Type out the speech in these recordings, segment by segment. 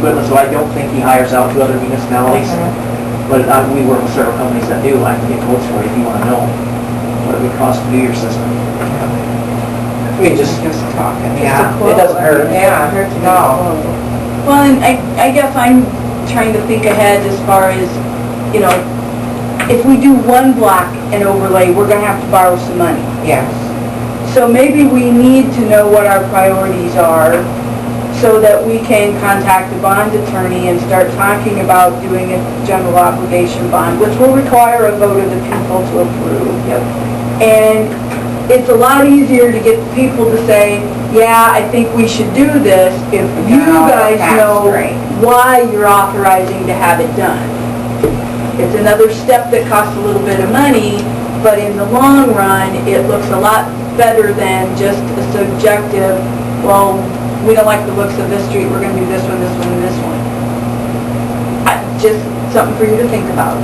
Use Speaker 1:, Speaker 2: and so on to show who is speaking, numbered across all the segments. Speaker 1: Goodman, so I don't think he hires out to other municipalities. But uh, we work with several companies that do, I can get quotes for you if you want to know what it would cost to do your system. I mean, just,
Speaker 2: Just talking,
Speaker 1: yeah.
Speaker 2: yeah.
Speaker 1: It doesn't hurt.
Speaker 2: Yeah, hurt to know.
Speaker 3: Well, and I, I guess I'm trying to think ahead as far as, you know, if we do one block and overlay, we're gonna have to borrow some money.
Speaker 2: Yes,
Speaker 3: So maybe we need to know what our priorities are so that we can contact the bond attorney and start talking about doing a general obligation bond, which will require a vote of the people to approve.
Speaker 1: Yep.
Speaker 3: And it's a lot easier to get the people to say, yeah, I think we should do this if you
Speaker 2: Yeah,
Speaker 3: guys
Speaker 2: that's
Speaker 3: know
Speaker 2: great.
Speaker 3: why you're authorizing to have it done. It's another step that costs a little bit of money, but in the long run, it looks a lot better than just a subjective, well, we don't like the looks of this street, we're gonna do this one, this one, and this one. I- Just something for you to think about.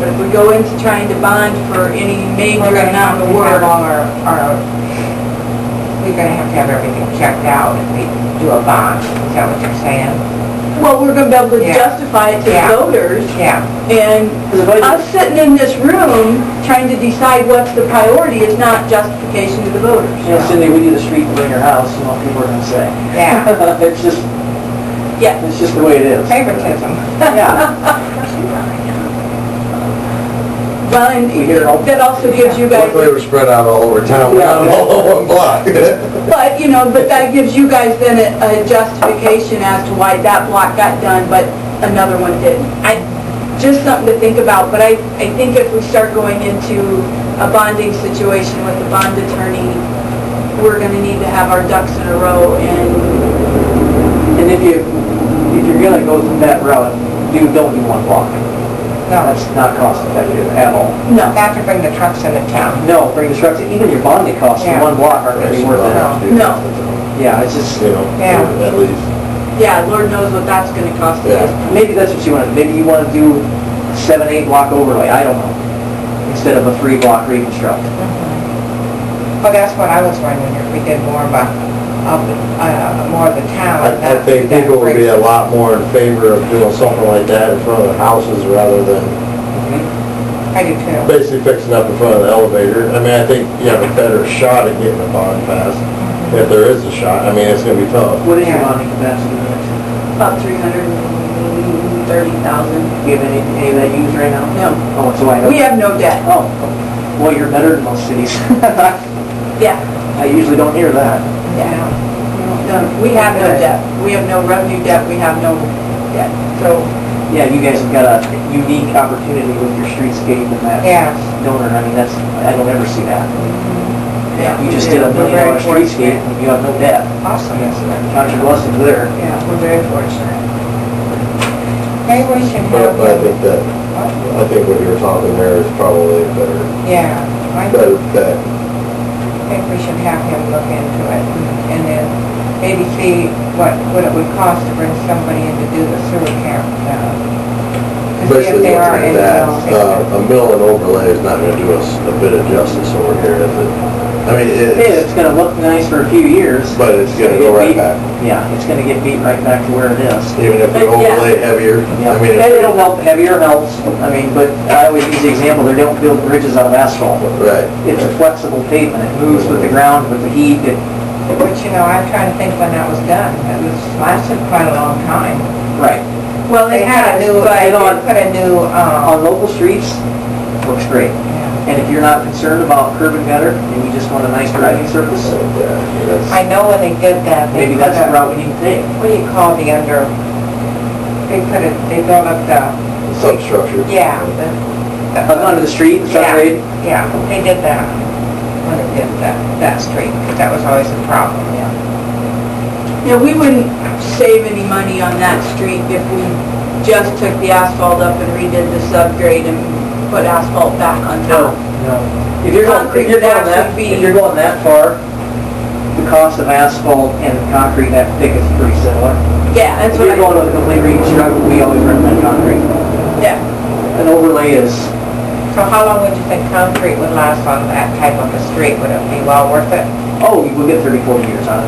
Speaker 3: But if we go into trying to bond for any
Speaker 2: we're
Speaker 3: major
Speaker 2: gonna have
Speaker 3: amount
Speaker 2: to
Speaker 3: of
Speaker 2: have
Speaker 3: work,
Speaker 2: all our, our, we're gonna have to have everything checked out if we do a bond, is that what you're saying?
Speaker 3: well, we're gonna be able to
Speaker 2: Yeah.
Speaker 3: justify it to the
Speaker 2: Yeah.
Speaker 3: voters.
Speaker 2: Yeah,
Speaker 3: And
Speaker 1: The budget-
Speaker 3: us sitting in this room trying to decide what's the priority is not justification to the voters.
Speaker 1: You know, Cindy, we do the street in your house, you know, people are gonna say.
Speaker 2: yeah,
Speaker 1: It's just,
Speaker 3: Yeah.
Speaker 1: it's just the way it is.
Speaker 2: favoritism.
Speaker 1: Yeah.
Speaker 3: Well, and
Speaker 1: We hear it all.
Speaker 3: that also gives you guys,
Speaker 4: Luckily, we're spread out all over town, we're not all on one block.
Speaker 3: but, you know, but that gives you guys then a a justification as to why that block got done, but another one didn't. I, just something to think about, but I, I think if we start going into a bonding situation with the bond attorney, we're gonna need to have our ducks in a row and
Speaker 1: And if you, if you're gonna go that route, do, don't do one block.
Speaker 2: No,
Speaker 1: That's not cost effective at all.
Speaker 3: No.
Speaker 2: not to bring the trucks into town.
Speaker 1: No, bring the trucks, even your bonding costs for
Speaker 2: Yeah.
Speaker 1: one block aren't gonna be worth it.
Speaker 3: No.
Speaker 1: Yeah, it's just,
Speaker 4: You know,
Speaker 2: Yeah.
Speaker 4: at least,
Speaker 3: Yeah, Lord knows what that's gonna cost us.
Speaker 1: maybe that's what you want, maybe you wanna do seven, eight block overlay, I don't know, instead of a three block reconstruct.
Speaker 2: Well, that's what I was wondering, if we did more of a, of, the- uh, more of the town.
Speaker 4: I, I think people would be a lot more in favor of doing something like that in front of the houses rather than
Speaker 2: I do too.
Speaker 4: basically fixing up in front of the elevator. I mean, I think you have a better shot at getting a bond passed, if there is a shot, I mean, it's gonna be tough.
Speaker 1: What is your
Speaker 2: Yeah.
Speaker 1: bonding capacity?
Speaker 3: About three hundred and thirty thousand.
Speaker 1: Do you have any, any of that used right now?
Speaker 3: No,
Speaker 1: Oh, it's wide open.
Speaker 3: we have no debt.
Speaker 1: Oh, well, you're better than most cities.
Speaker 3: Yeah,
Speaker 1: I usually don't hear that.
Speaker 2: Yeah.
Speaker 3: no, we have no debt. We have no revenue debt, we have no debt. So,
Speaker 1: Yeah, you guys have got a unique opportunity with your streetscape and that
Speaker 2: Yeah,
Speaker 1: donor, I mean, that's, I don't ever see that.
Speaker 3: yeah.
Speaker 1: You
Speaker 3: we
Speaker 1: just
Speaker 3: do.
Speaker 1: did a
Speaker 2: We're
Speaker 1: million
Speaker 2: very
Speaker 1: dollar streetscape and you have no debt.
Speaker 2: awesome, isn't it?
Speaker 1: Count your blessings there.
Speaker 2: Yeah, we're very fortunate. Maybe we should
Speaker 4: But
Speaker 2: have,
Speaker 4: but I think that,
Speaker 2: what?
Speaker 4: I think what you're talking there is probably a better,
Speaker 2: yeah, I
Speaker 4: better bet.
Speaker 2: think we should have him look into it and then maybe see what, what it would cost to bring somebody in to do the sewer camp. uh, to see if
Speaker 4: Basically,
Speaker 2: they are
Speaker 4: looking at
Speaker 2: in
Speaker 4: that,
Speaker 2: jail.
Speaker 4: uh, a mill and overlay is not gonna do us a bit of justice over here, is it? I mean,
Speaker 1: Yeah,
Speaker 4: it's,
Speaker 1: it's gonna look nice for a few years.
Speaker 4: but it's gonna go
Speaker 1: Beat-
Speaker 4: right back,
Speaker 1: Yeah, it's gonna get beat right back to where it is.
Speaker 4: even if we
Speaker 3: But, yeah.
Speaker 4: overlay heavier.
Speaker 1: Yeah,
Speaker 4: I
Speaker 1: and
Speaker 4: mean,
Speaker 1: it'll
Speaker 4: if-
Speaker 1: help, heavier helps, I mean, but I always use the example, they don't build bridges out of asphalt. It's a
Speaker 4: right.
Speaker 1: flexible pavement, it moves with the ground, with the heat, it,
Speaker 2: But you know, I'm trying to think when that was done. It was, lasted quite a long time.
Speaker 1: right.
Speaker 3: Well,
Speaker 2: They had a new,
Speaker 1: but-
Speaker 2: they put a new, um,
Speaker 1: On local streets, looks great.
Speaker 2: yeah.
Speaker 1: And if you're not concerned about curb and gutter, and you just want a nice driving surface,
Speaker 4: So, yeah, that's-
Speaker 2: I know when they did that, they
Speaker 1: maybe
Speaker 2: put
Speaker 1: that's the
Speaker 2: a,
Speaker 1: route we need to take.
Speaker 2: what do you call the under, they put it, they built up the,
Speaker 4: Substructure.
Speaker 2: yeah, the,
Speaker 1: Up onto the street, the subgrade,
Speaker 2: yeah, they did that. When they did that, that street, 'cause that was always a problem, yeah.
Speaker 3: Now, we wouldn't save any money on that street if we just took the asphalt up and redid the subgrade and put asphalt back on
Speaker 1: No,
Speaker 3: top.
Speaker 1: no. If you're going, if you're going that, if you're going that far, the cost of asphalt and concrete that thick is pretty similar.
Speaker 3: Yeah,
Speaker 1: If
Speaker 3: that's what
Speaker 1: Oh. you're
Speaker 3: I,
Speaker 1: going with a complete reconstruct, we always recommend concrete.
Speaker 3: yeah.
Speaker 1: An overlay is,
Speaker 2: So how long would you think concrete would last on that type of a street? Would it be well worth it?
Speaker 1: oh, we'll get 30, 40 years out of it.